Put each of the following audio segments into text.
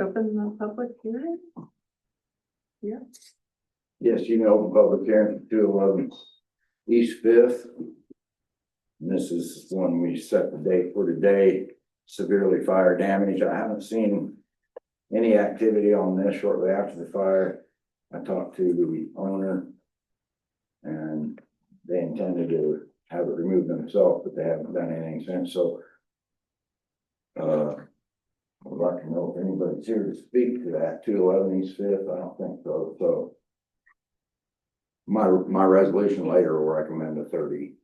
Open the public hearing? Yeah. Yes, you know, open public hearing for two eleven East Fifth. And This is when we set the date for today, severely fire damage. I haven't seen any activity on this shortly after the fire. I talked to the owner. And they intended to have it removed themselves, but they haven't done anything since, so. Uh, I'd like to know if anybody's here to speak to that two eleven East Fifth. I don't think so, so. My, my resolution later will recommend a thirty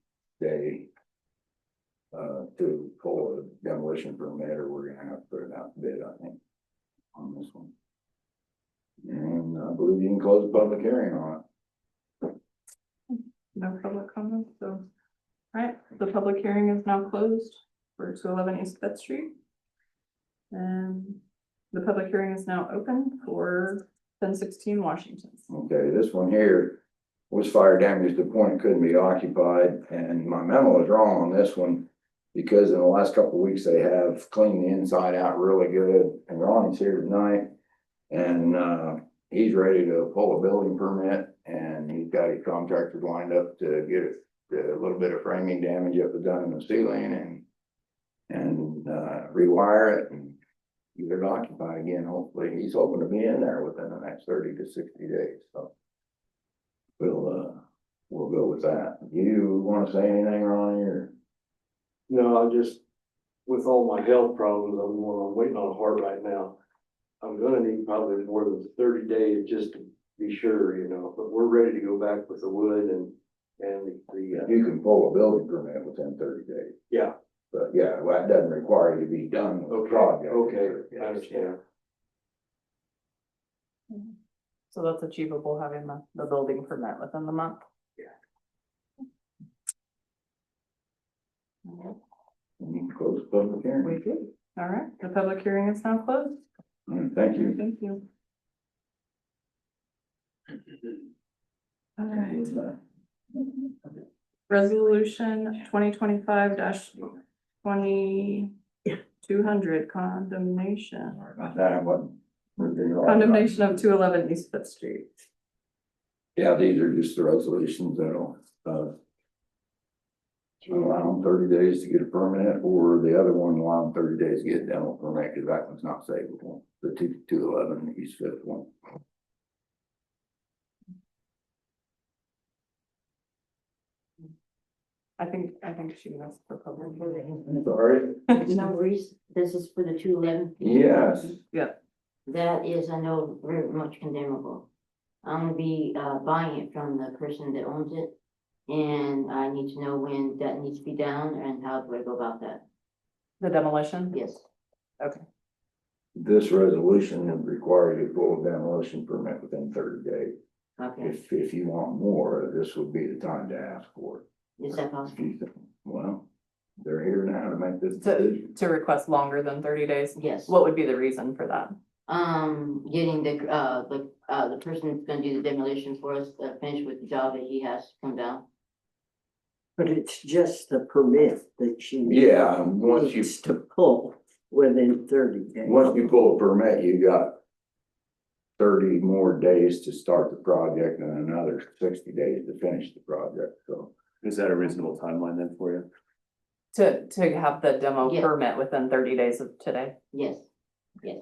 day. Uh, to pull a demolition permit, or we're gonna have to put it out to bid, I think. On this one. And I believe you can close the public hearing on No public comments, so. Alright, the public hearing is now closed for two eleven East Fifth Street. And the public hearing is now open for ten sixteen Washington. it. Okay, this one here. Was fire damage to the point it couldn't be occupied, and my memo is wrong on this one. Because in the last couple of weeks, they have cleaned the inside out really good, and Ronnie's here tonight. And, uh, he's ready to pull a building permit and he's got his contractors lined up to get it, the little bit of framing damage up was done in the ceiling and. And, uh, rewire it and get it occupied again, hopefully. He's hoping to be in there within the next thirty to sixty days, so. We'll, uh, we'll go with that. You wanna say anything, Ronnie, or? No, I just, with all my health problems, I'm, well, I'm waiting on a heart right now. I'm gonna need probably more than thirty days just to be sure, you know, but we're ready to go back with the wood and, and the, uh, You can pull a building permit within thirty days. yeah, But yeah, well, that doesn't require you to be done with the okay, project. okay, I understand. So that's achievable, having the, the building permit within the month? Yeah. Alright, You can close the public hearing. We do. Alright, the public hearing is now closed. Mm, Thank you. Thank you. Alright. Resolution twenty twenty-five dash twenty two hundred condemnation, Sorry about that, I wasn't. condemnation of two eleven East Fifth Street. Yeah, these are just the resolutions that'll, uh. Allow them thirty days to get a permit, or the other one allow them thirty days to get a demo permit, because that one's not savable, the two, two eleven, East Fifth one. I think, I think she missed the public hearing. Sorry? No reason, this is for the two eleven. Yes, That is, I know, very much condemnable. I'm gonna be uh buying it from the person that owns it. And I need to know when that needs to be down and how do I go about that? The demolition? Yes, this resolution would require you to pull a demolition permit within thirty days. okay, If, if you want more, this would be the time to ask for it. is that If possible? you think, Well, they're here now to make this To, decision. to request longer than thirty days, Yes, what would be the reason for that? um, getting the uh, the uh, the person that's gonna do the demolition for us, uh, finished with the job that he has to come down. But it's just the permit that she Yeah, and once you, needs to pull within thirty days. once you pull a permit, you got thirty more days to start the project and another sixty days to finish the project, so. Is that a reasonable timeline then for you? To, to have the demo Yeah. permit within thirty days of today? Yes, yes.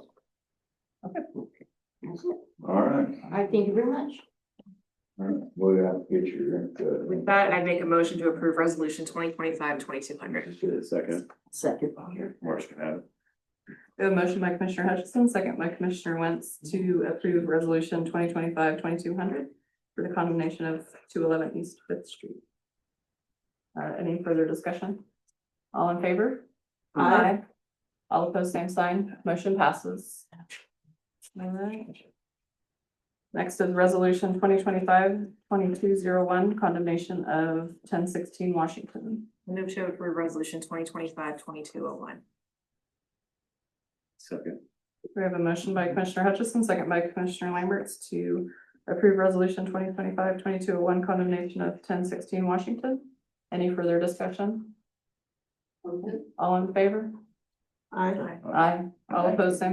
Okay. That's it. All right, All right, thank you very much. all right, we'll have to get your. With that, I make a motion to approve resolution 2025 2200. Second, Second. Marsh can have it. We have a motion by Commissioner Hutchison, second by Commissioner Wentz to approve resolution 2025-2200 for the condemnation of two eleven East Fifth Street. Uh, any further discussion? All in favor? Aye. All opposed, same sign, motion passes. All right. Next is resolution 2025-2201 condemnation of ten sixteen Washington. Move to approve resolution 2025 22 oh one. Second, We have a motion by Commissioner Hutchison, second by Commissioner Lamberts to approve resolution 2025-2201 condemnation of ten sixteen Washington. Any further discussion? All in favor? Aye. Aye. All opposed, same